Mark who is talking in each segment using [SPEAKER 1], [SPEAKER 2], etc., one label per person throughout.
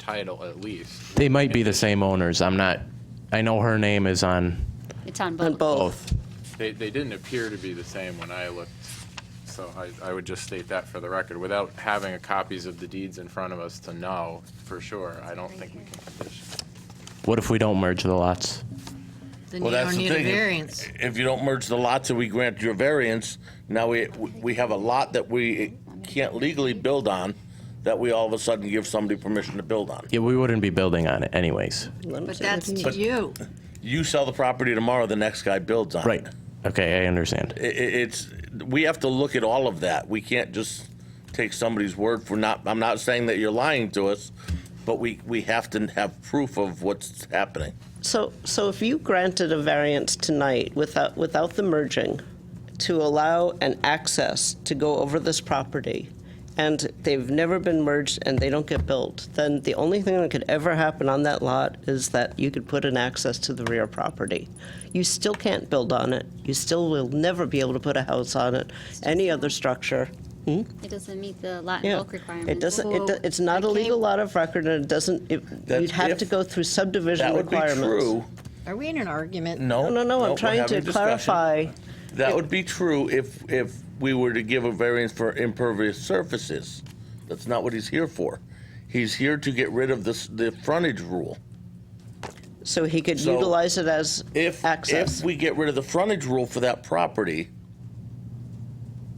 [SPEAKER 1] title at least.
[SPEAKER 2] They might be the same owners. I'm not. I know her name is on
[SPEAKER 3] It's on
[SPEAKER 4] on
[SPEAKER 3] both.
[SPEAKER 4] both.
[SPEAKER 1] They, they didn't appear to be the same when I looked, so I, I would just state that for the record. Without having a copies of the deeds in front of us to know for sure, I don't think we can condition.
[SPEAKER 2] What if we don't merge the lots?
[SPEAKER 5] Then
[SPEAKER 6] Well,
[SPEAKER 5] you
[SPEAKER 6] that's
[SPEAKER 5] don't
[SPEAKER 6] the
[SPEAKER 5] need a
[SPEAKER 6] thing.
[SPEAKER 5] variance.
[SPEAKER 6] If you don't merge the lots and we grant your variance, now we, we have a lot that we can't legally build on that we all of a sudden give somebody permission to build on.
[SPEAKER 2] Yeah, we wouldn't be building on it anyways.
[SPEAKER 5] But that's to
[SPEAKER 6] But-
[SPEAKER 5] you.
[SPEAKER 6] You sell the property tomorrow, the next guy builds on it.
[SPEAKER 2] Right. Okay, I understand.
[SPEAKER 6] I- i- it's, we have to look at all of that. We can't just take somebody's word for not, I'm not saying that you're lying to us, but we, we have to have proof of what's happening.
[SPEAKER 4] So, so if you granted a variance tonight without, without the merging to allow an access to go over this property, and they've never been merged and they don't get built, then the only thing that could ever happen on that lot is that you could put an access to the rear property. You still can't build on it. You still will never be able to put a house on it, any other structure.
[SPEAKER 3] It doesn't meet the lot and
[SPEAKER 4] Yeah,
[SPEAKER 3] bulk requirements. Oh,
[SPEAKER 4] it doesn't, it, do- it's
[SPEAKER 5] I
[SPEAKER 4] not a
[SPEAKER 5] can't-
[SPEAKER 4] legal lot of record, and it doesn't, it-
[SPEAKER 6] That's
[SPEAKER 4] you'd have
[SPEAKER 6] if-
[SPEAKER 4] to go through subdivision
[SPEAKER 6] That would be
[SPEAKER 4] requirements.
[SPEAKER 6] true.
[SPEAKER 5] Are we in an argument?
[SPEAKER 6] No.
[SPEAKER 4] No, no, no,
[SPEAKER 6] we're
[SPEAKER 4] I'm trying
[SPEAKER 6] having
[SPEAKER 4] to
[SPEAKER 6] a discussion.
[SPEAKER 4] clarify.
[SPEAKER 6] That would be true if, if we were to give a variance for impervious surfaces. That's not what he's here for. He's here to get rid of this, the frontage rule.
[SPEAKER 4] So he could
[SPEAKER 6] So,
[SPEAKER 4] utilize it as
[SPEAKER 6] If,
[SPEAKER 4] access.
[SPEAKER 6] if we get rid of the frontage rule for that property,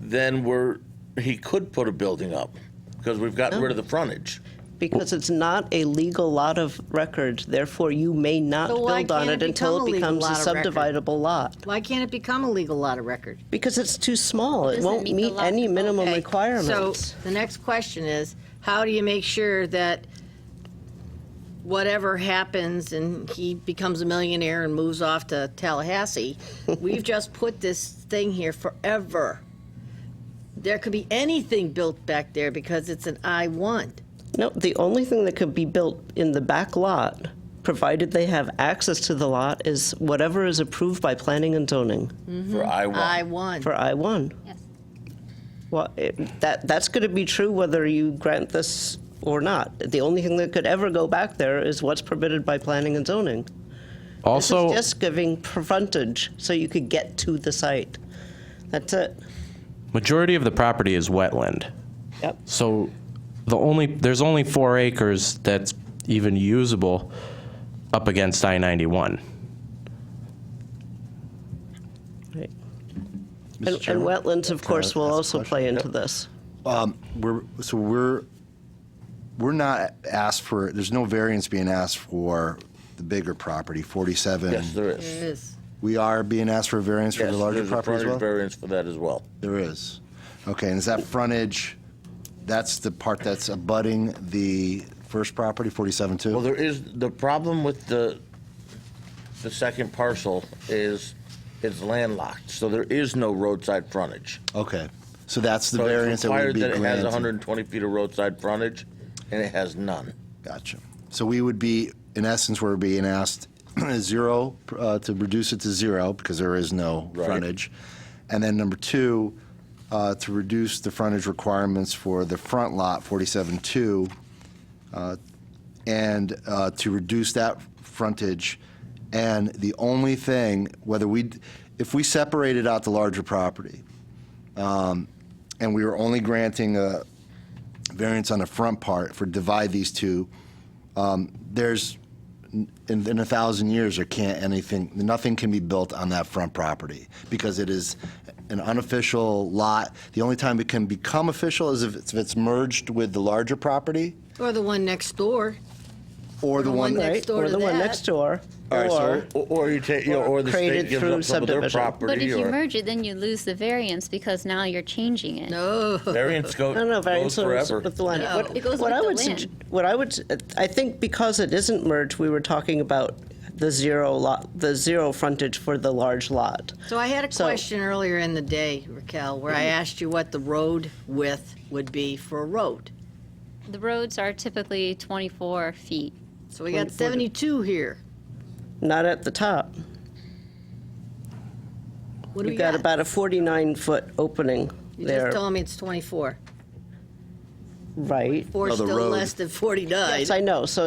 [SPEAKER 6] then we're, he could put a building up because we've gotten rid of the frontage.
[SPEAKER 4] Because it's not a legal lot of record, therefore you may not
[SPEAKER 5] So why
[SPEAKER 4] build on
[SPEAKER 5] can't
[SPEAKER 4] it
[SPEAKER 5] it
[SPEAKER 4] until it
[SPEAKER 5] become a
[SPEAKER 4] becomes a
[SPEAKER 5] legal lot of record?
[SPEAKER 4] subdividable lot.
[SPEAKER 5] Why can't it become a legal lot of record?
[SPEAKER 4] Because it's too small, it
[SPEAKER 3] Doesn't
[SPEAKER 4] won't
[SPEAKER 3] meet the
[SPEAKER 4] meet
[SPEAKER 3] lot-
[SPEAKER 4] any minimum
[SPEAKER 5] Okay,
[SPEAKER 4] requirements.
[SPEAKER 5] So the next question is, how do you make sure that whatever happens and he becomes a millionaire and moves off to Tallahassee, we've just put this thing here forever. There could be anything built back there because it's an I one.
[SPEAKER 4] No, the only thing that could be built in the back lot, provided they have access to the lot, is whatever is approved by planning and zoning
[SPEAKER 6] For I
[SPEAKER 5] I
[SPEAKER 6] one.
[SPEAKER 5] one.
[SPEAKER 4] for I-1.
[SPEAKER 3] Yes.
[SPEAKER 4] Well, it- that, that's going to be true whether you grant this or not. The only thing that could ever go back there is what's permitted by planning and zoning. This
[SPEAKER 2] Also,
[SPEAKER 4] is just giving frontage so you could get to the site. That's it.
[SPEAKER 2] majority of the property is wetland.
[SPEAKER 4] Yep.
[SPEAKER 2] So the only there's only 4 acres that's even usable up against I-91.
[SPEAKER 4] Right.
[SPEAKER 7] Mr.
[SPEAKER 4] And and
[SPEAKER 7] Chairman?
[SPEAKER 4] wetlands, of
[SPEAKER 7] Can I
[SPEAKER 4] course, will
[SPEAKER 7] ask a
[SPEAKER 4] also
[SPEAKER 7] question?
[SPEAKER 4] play into this.
[SPEAKER 7] We're, so we're, we're not asked for, there's no variance being asked for the bigger property, 47.
[SPEAKER 6] Yes, there is.
[SPEAKER 5] It is.
[SPEAKER 7] We are being asked for a variance for
[SPEAKER 6] Yes,
[SPEAKER 7] the larger
[SPEAKER 6] there's a
[SPEAKER 7] property as
[SPEAKER 6] frontage
[SPEAKER 7] well?
[SPEAKER 6] Variance for that as well.
[SPEAKER 7] There is. Okay, and is that frontage, that's the part that's abutting the first property, 47 too?
[SPEAKER 6] Well, there is, the problem with the, the second parcel is it's landlocked, so there is no roadside frontage.
[SPEAKER 7] Okay, so that's the
[SPEAKER 6] So it's
[SPEAKER 7] variance that would
[SPEAKER 6] required
[SPEAKER 7] be
[SPEAKER 6] It has
[SPEAKER 7] granted.
[SPEAKER 6] 120 feet of roadside frontage, and it has none.
[SPEAKER 7] Gotcha. So we would be, in essence, we're being asked zero, uh, to reduce it to zero, because there is no
[SPEAKER 6] Right.
[SPEAKER 7] frontage. And then number two, uh, to reduce the frontage requirements for the front lot, 47-2, uh, and uh, to reduce that frontage. And the only thing, whether we, if we separated out the larger property, um, and we were only granting a variance on the front part for divide these two, um, there's, in, in a thousand years, there can't anything, nothing can be built on that front property because it is an unofficial lot. The only time it can become official is if it's, if it's merged with the larger property
[SPEAKER 5] Or the one next door.
[SPEAKER 7] or
[SPEAKER 5] The
[SPEAKER 7] the
[SPEAKER 5] one
[SPEAKER 7] one.
[SPEAKER 5] that-
[SPEAKER 4] Right?
[SPEAKER 5] Next door
[SPEAKER 4] Or
[SPEAKER 5] to
[SPEAKER 4] the one
[SPEAKER 5] that.
[SPEAKER 4] next door.
[SPEAKER 6] All right, so-
[SPEAKER 4] Or,
[SPEAKER 6] Or or you take, you know, or the
[SPEAKER 4] Created
[SPEAKER 6] state gives
[SPEAKER 4] through
[SPEAKER 6] up some of their
[SPEAKER 4] subdivision.
[SPEAKER 6] property.
[SPEAKER 3] But if you
[SPEAKER 6] or-
[SPEAKER 3] merge it, then you lose the variance because now you're changing it.
[SPEAKER 5] No.
[SPEAKER 6] Variance go-
[SPEAKER 4] no, no, variance
[SPEAKER 6] goes
[SPEAKER 4] goes
[SPEAKER 6] forever.
[SPEAKER 4] with the land.
[SPEAKER 3] No.
[SPEAKER 4] What-
[SPEAKER 3] It goes with
[SPEAKER 4] what I
[SPEAKER 3] the
[SPEAKER 4] would
[SPEAKER 3] land.
[SPEAKER 4] sugg- What I would, s- I think because it isn't merged, we were talking about the zero lot, the zero frontage for the large lot.
[SPEAKER 5] So I had a
[SPEAKER 4] So- Mm-hmm.
[SPEAKER 5] question earlier in the day, Raquel, where I asked you what the road width would be for a road.
[SPEAKER 3] The roads are typically 24 feet.
[SPEAKER 5] So we got 72 here.
[SPEAKER 4] Not at the top.
[SPEAKER 5] What do we
[SPEAKER 4] You've got
[SPEAKER 5] got?
[SPEAKER 4] about a 49-foot opening
[SPEAKER 5] You just
[SPEAKER 4] there.
[SPEAKER 5] told me it's 24. right?
[SPEAKER 4] Or
[SPEAKER 8] No, the
[SPEAKER 4] still
[SPEAKER 8] road.
[SPEAKER 4] less than 49.
[SPEAKER 5] Yes, I know, so